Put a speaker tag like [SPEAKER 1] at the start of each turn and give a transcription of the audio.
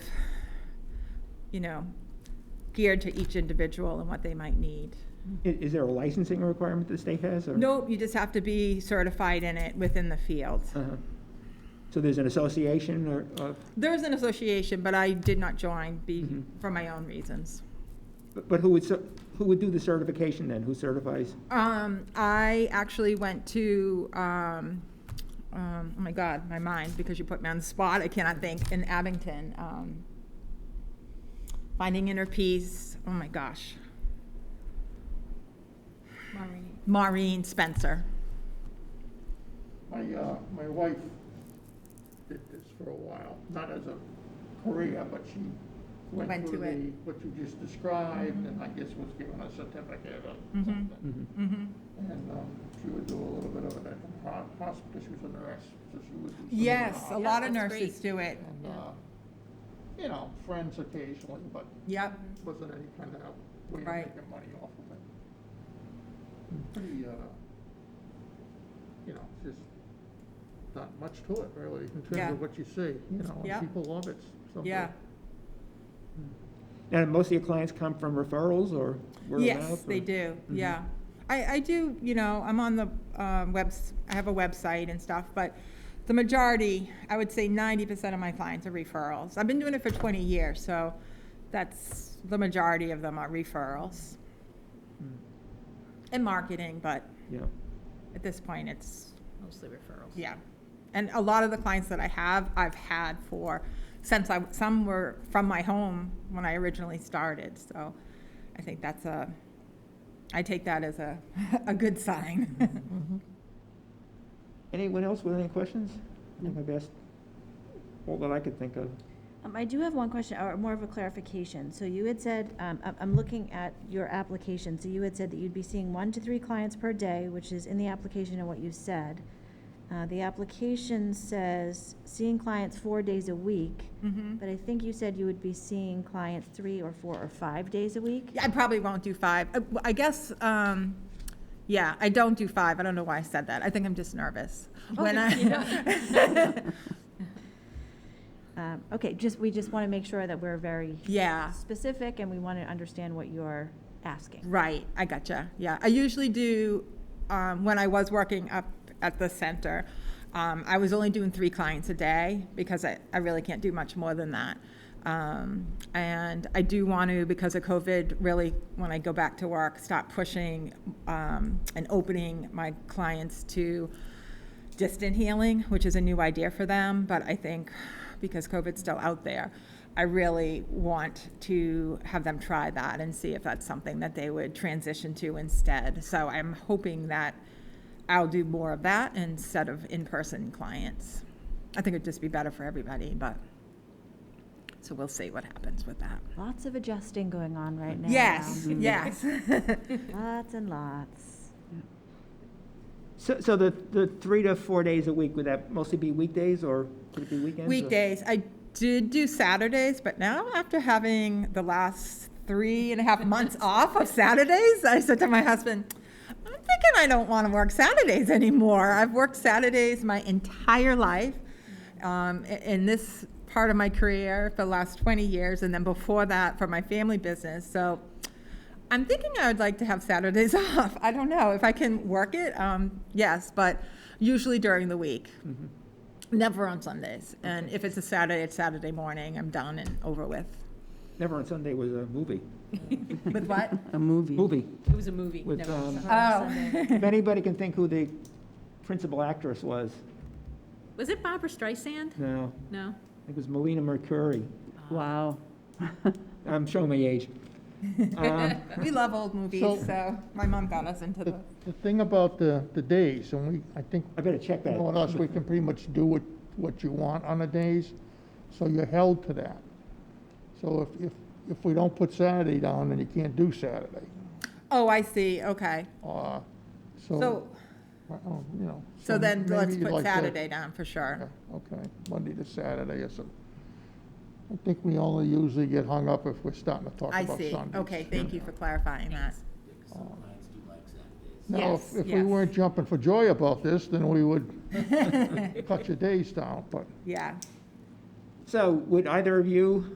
[SPEAKER 1] you know, geared to each individual and what they might need.
[SPEAKER 2] I- Is there a licensing requirement the state has? or-
[SPEAKER 1] Nope, you just have to be certified in it within the field.
[SPEAKER 2] Uh-huh. So there's an association or, of-
[SPEAKER 1] There's an association, but I did not join be,
[SPEAKER 2] Mhm.
[SPEAKER 1] for my own reasons.
[SPEAKER 2] but- but who would, cer- who would do the certification then? Who certifies?
[SPEAKER 1] Um, I actually went to, um, um, oh my God, my mind, because you put me on the spot, I cannot think, in Abington. Um, finding inner peace, oh my gosh.
[SPEAKER 3] Maureen.
[SPEAKER 1] Maureen Spencer.
[SPEAKER 4] My, uh, my wife did this for a while, not as a career, but she
[SPEAKER 1] Went
[SPEAKER 4] went through
[SPEAKER 1] to it.
[SPEAKER 4] the, what you just described, and I guess was given a certificate or
[SPEAKER 1] Mhm.
[SPEAKER 4] something.
[SPEAKER 1] Mm-hmm.
[SPEAKER 4] And, um, she would do a little bit of it at the ho- hospital, she was a nurse, so she would do some of the
[SPEAKER 1] Yes, a
[SPEAKER 4] hospital.
[SPEAKER 1] lot of
[SPEAKER 3] that's
[SPEAKER 1] nurses
[SPEAKER 3] great.
[SPEAKER 1] do it.
[SPEAKER 4] And,
[SPEAKER 3] Yeah.
[SPEAKER 4] uh, you know, friends occasionally, but
[SPEAKER 1] Yep.
[SPEAKER 4] wasn't any kind of way of
[SPEAKER 1] Right. Hmm.
[SPEAKER 4] making money off of it. Pretty, uh, you know, just not much to it really, in
[SPEAKER 1] Yeah.
[SPEAKER 4] terms of what you see, you know,
[SPEAKER 1] Yeah.
[SPEAKER 4] and people love it. so-
[SPEAKER 1] Yeah.
[SPEAKER 2] Now, most of your clients come from referrals or word of mouth?
[SPEAKER 1] Yes, they
[SPEAKER 2] or- Mm-hmm.
[SPEAKER 1] do. Yeah. I, I do, you know, I'm on the um, webs, I have a website and stuff, but the majority, I would say 90% of my clients are referrals. I've been doing it for 20 years, so that's the majority of them are referrals
[SPEAKER 2] Mm,
[SPEAKER 1] and marketing, but
[SPEAKER 2] Yeah.
[SPEAKER 1] at this point, it's,
[SPEAKER 3] Mostly referrals.
[SPEAKER 1] yeah. And a lot of the clients that I have, I've had for since I, some were from my home when I originally started, so I think that's a, I take that as a, a good sign.
[SPEAKER 2] Anyone else with any questions? I think I've asked all that I could think of.
[SPEAKER 5] Um, I do have one question, or more of a clarification. So you had said, um, I'm, I'm looking at your application, so you had said that you'd be seeing one to three clients per day, which is in the application and what you said. Uh, the application says seeing clients four days a week,
[SPEAKER 1] Mhm.
[SPEAKER 5] but I think you said you would be seeing clients three or four or five days a week?
[SPEAKER 1] Yeah, I probably won't do five. Uh, w- I guess, um, yeah, I don't do five. I don't know why I said that. I think I'm just nervous. When
[SPEAKER 3] Oh,
[SPEAKER 1] I,
[SPEAKER 5] Um, okay, just, we just want to make sure that we're very
[SPEAKER 1] yeah,
[SPEAKER 5] specific and we want to understand what you're asking.
[SPEAKER 1] right. I gotcha. Yeah, I usually do. Um, when I was working up at the center, um, I was only doing three clients a day because I, I really can't do much more than that. Um, and I do want to, because of COVID, really, when I go back to work, stop pushing um, and opening my clients to distant healing, which is a new idea for them, but I think because COVID's still out there, I really want to have them try that and see if that's something that they would transition to instead. So I'm hoping that I'll do more of that instead of in person clients. I think it'd just be better for everybody, but so we'll see what happens with that.
[SPEAKER 5] Lots of adjusting going on right now. Mm-hmm.
[SPEAKER 1] Yes, yes.
[SPEAKER 5] Lots and lots.
[SPEAKER 2] So, so the, the three to four days a week, would that mostly be weekdays or could it be weekends? or-
[SPEAKER 1] Weekdays. I did do Saturdays, but now after having the last three and a half months off of Saturdays, I said to my husband, I'm thinking I don't want to work Saturdays anymore. I've worked Saturdays my entire life um, i- in this part of my career for the last 20 years, and then before that for my family business. So I'm thinking I would like to have Saturdays off. I don't know if I can work it. Um, yes, but usually during the week. Never on Sundays. And if it's a Saturday, it's Saturday morning. I'm done and over with.
[SPEAKER 2] Never on Sunday was a movie.
[SPEAKER 1] With what?
[SPEAKER 6] A movie.
[SPEAKER 2] Movie.
[SPEAKER 3] It was a movie.
[SPEAKER 2] With,
[SPEAKER 3] never
[SPEAKER 2] um,
[SPEAKER 3] saw it.
[SPEAKER 1] Oh.
[SPEAKER 2] If anybody can think who the principal actress was,
[SPEAKER 3] Was it Barbara Streisand?
[SPEAKER 2] no,
[SPEAKER 3] No.
[SPEAKER 2] it was Melina Mercuri.
[SPEAKER 6] Wow.
[SPEAKER 2] I'm showing my age. Um,
[SPEAKER 1] We love old
[SPEAKER 4] So-
[SPEAKER 1] movies, so my mom got us into the.
[SPEAKER 4] The thing about the, the days, and we, I think,
[SPEAKER 2] I better check that.
[SPEAKER 4] knowing us, we can pretty much do what, what you want on the days, so you're held to that. So if, if, if we don't put Saturday down, then you can't do Saturday,
[SPEAKER 1] Oh, I see. Okay.
[SPEAKER 4] uh,
[SPEAKER 1] So,
[SPEAKER 4] so, well, you know.
[SPEAKER 1] so then
[SPEAKER 4] maybe
[SPEAKER 1] let's
[SPEAKER 4] you'd
[SPEAKER 1] put
[SPEAKER 4] like to-
[SPEAKER 1] Saturday down for sure.
[SPEAKER 4] Yeah, Okay, Monday to Saturday or something. I think we only usually get hung up if we're starting to talk
[SPEAKER 1] I
[SPEAKER 4] about Sundays.
[SPEAKER 1] see. Okay, thank you for clarifying that.
[SPEAKER 4] Now, if-
[SPEAKER 1] Yes,
[SPEAKER 4] if we
[SPEAKER 1] yes.
[SPEAKER 4] weren't jumping for joy about this, then we would cut your days down, but
[SPEAKER 1] Yeah.
[SPEAKER 2] So would either of you